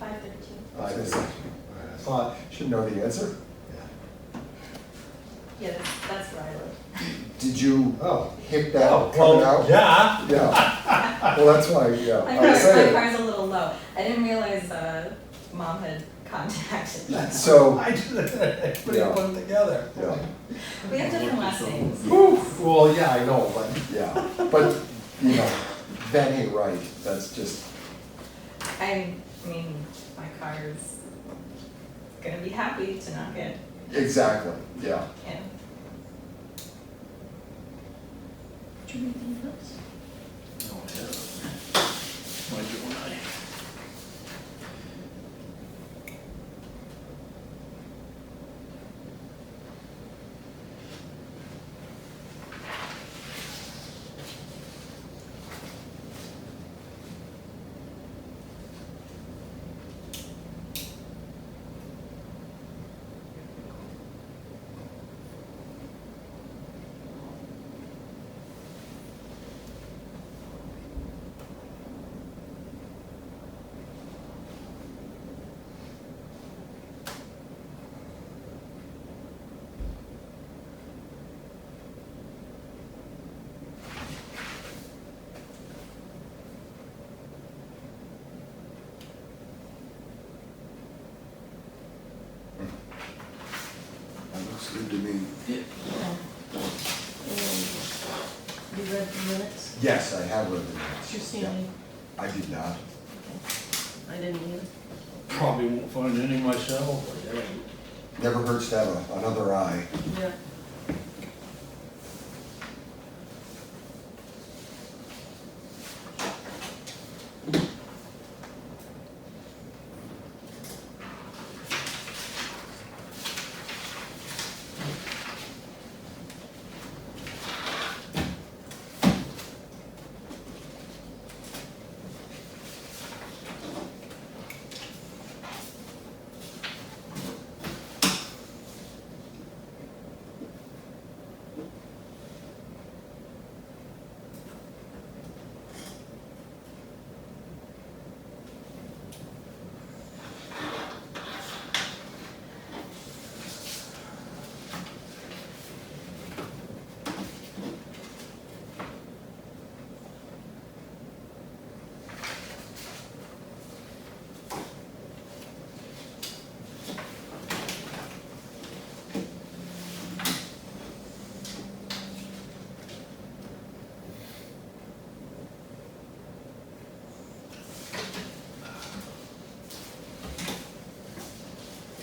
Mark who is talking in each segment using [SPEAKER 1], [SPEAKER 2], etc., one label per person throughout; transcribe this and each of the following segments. [SPEAKER 1] there too.
[SPEAKER 2] I just, I thought, should know the answer.
[SPEAKER 1] Yeah, that's, that's where I live.
[SPEAKER 2] Did you
[SPEAKER 3] Oh.
[SPEAKER 2] hit
[SPEAKER 3] Oh,
[SPEAKER 2] that coming
[SPEAKER 3] well,
[SPEAKER 2] out?
[SPEAKER 3] yeah,
[SPEAKER 2] Yeah. Well, that's why, yeah,
[SPEAKER 1] My
[SPEAKER 2] I was
[SPEAKER 1] car, my
[SPEAKER 2] saying.
[SPEAKER 1] car's a little low. I didn't realize, uh, mom had contacted me.
[SPEAKER 2] So,
[SPEAKER 3] I did, put
[SPEAKER 2] Yeah.
[SPEAKER 3] one together.
[SPEAKER 2] yeah,
[SPEAKER 1] We have different last names.
[SPEAKER 3] Oof, well, yeah, I know, but
[SPEAKER 2] yeah, but, you know, that ain't right, that's just,
[SPEAKER 1] I mean, my car is gonna be happy to not get,
[SPEAKER 2] exactly, yeah.
[SPEAKER 1] yeah. Did you make any notes?
[SPEAKER 4] No, I haven't. Why do I? That looks good to me. Yeah.
[SPEAKER 5] You read the minutes?
[SPEAKER 2] Yes, I have read the minutes.
[SPEAKER 5] Christine,
[SPEAKER 2] Yeah. I did not.
[SPEAKER 5] I didn't either.
[SPEAKER 4] Probably won't find any myself, but yeah.
[SPEAKER 2] Never hurts to have a- another eye.
[SPEAKER 5] Yeah.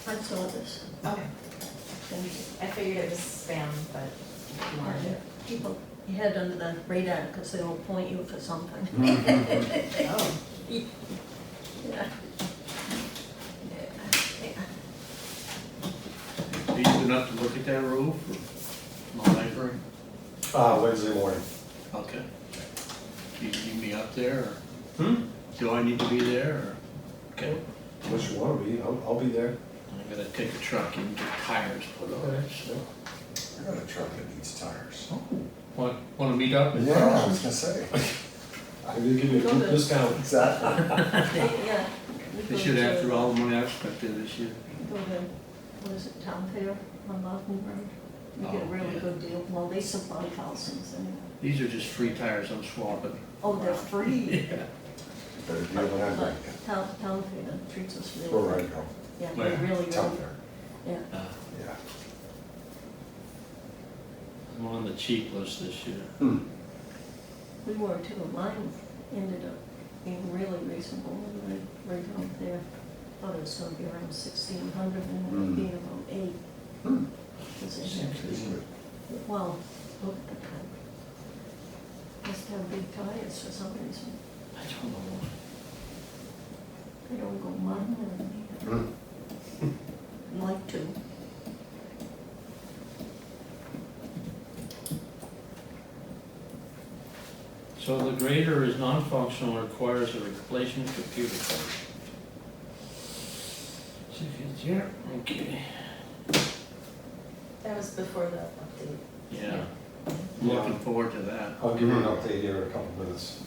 [SPEAKER 5] I saw this,
[SPEAKER 1] Okay,
[SPEAKER 5] thank you.
[SPEAKER 1] I figured it was spam, but if you wanted it.
[SPEAKER 5] People, you had under the radar, because they will point you for something.
[SPEAKER 4] Mm-hmm.
[SPEAKER 1] Oh.
[SPEAKER 5] Yeah. Yeah.
[SPEAKER 4] Are you good enough to look at that roof or my library?
[SPEAKER 3] uh, Wednesday morning.
[SPEAKER 4] Okay. Do you need me up there or
[SPEAKER 3] Hmm?
[SPEAKER 4] do I need to be there or? Okay,
[SPEAKER 3] Unless you wanna be, I'll, I'll be there.
[SPEAKER 4] I'm gonna take a truck and get tires put on it, so.
[SPEAKER 2] I got a truck that needs tires.
[SPEAKER 4] Want, wanna meet up? and-
[SPEAKER 2] Yeah, I was gonna say.
[SPEAKER 3] I'm gonna give you a
[SPEAKER 5] Go
[SPEAKER 3] deep
[SPEAKER 5] there.
[SPEAKER 3] discount.
[SPEAKER 2] Exactly.
[SPEAKER 5] Yeah. we
[SPEAKER 4] They
[SPEAKER 5] go
[SPEAKER 4] should
[SPEAKER 5] to-
[SPEAKER 4] after all the money I spent there this year.
[SPEAKER 5] Go to, what is it, Town Fair on Mountain Road? You get a
[SPEAKER 4] Oh,
[SPEAKER 5] really
[SPEAKER 4] yeah.
[SPEAKER 5] good deal, well, they supply thousands and,
[SPEAKER 4] These are just free tires I'm swapping.
[SPEAKER 5] oh, they're free.
[SPEAKER 4] Yeah.
[SPEAKER 2] Better deal than I
[SPEAKER 5] But
[SPEAKER 2] like it.
[SPEAKER 5] Town, Town Fair treats us really.
[SPEAKER 2] We're
[SPEAKER 5] good.
[SPEAKER 2] right home.
[SPEAKER 5] Yeah,
[SPEAKER 4] Yeah.
[SPEAKER 5] they really,
[SPEAKER 2] Town
[SPEAKER 5] really,
[SPEAKER 2] fair,
[SPEAKER 5] yeah.
[SPEAKER 4] Uh,
[SPEAKER 2] yeah.
[SPEAKER 4] I'm on the cheap list this year.
[SPEAKER 5] We were too, mine ended up being really reasonable when I went out there. Thought it was gonna be around sixteen hundred and it
[SPEAKER 2] Mm.
[SPEAKER 5] ended up being about eight.
[SPEAKER 2] Hmm.
[SPEAKER 5] Because they
[SPEAKER 2] It's
[SPEAKER 5] actually,
[SPEAKER 2] good.
[SPEAKER 5] well, look at the time. Must have big tires for some reason.
[SPEAKER 4] I don't know why.
[SPEAKER 5] They don't go mine or
[SPEAKER 2] Hmm.
[SPEAKER 5] anything. Like to.
[SPEAKER 4] So the grader is non-functional, and requires a replacement computer card. See if it's here, okay.
[SPEAKER 1] That was before the update.
[SPEAKER 4] Yeah, looking forward to that.
[SPEAKER 3] Mm-hmm. I'll give you an update here in a couple minutes.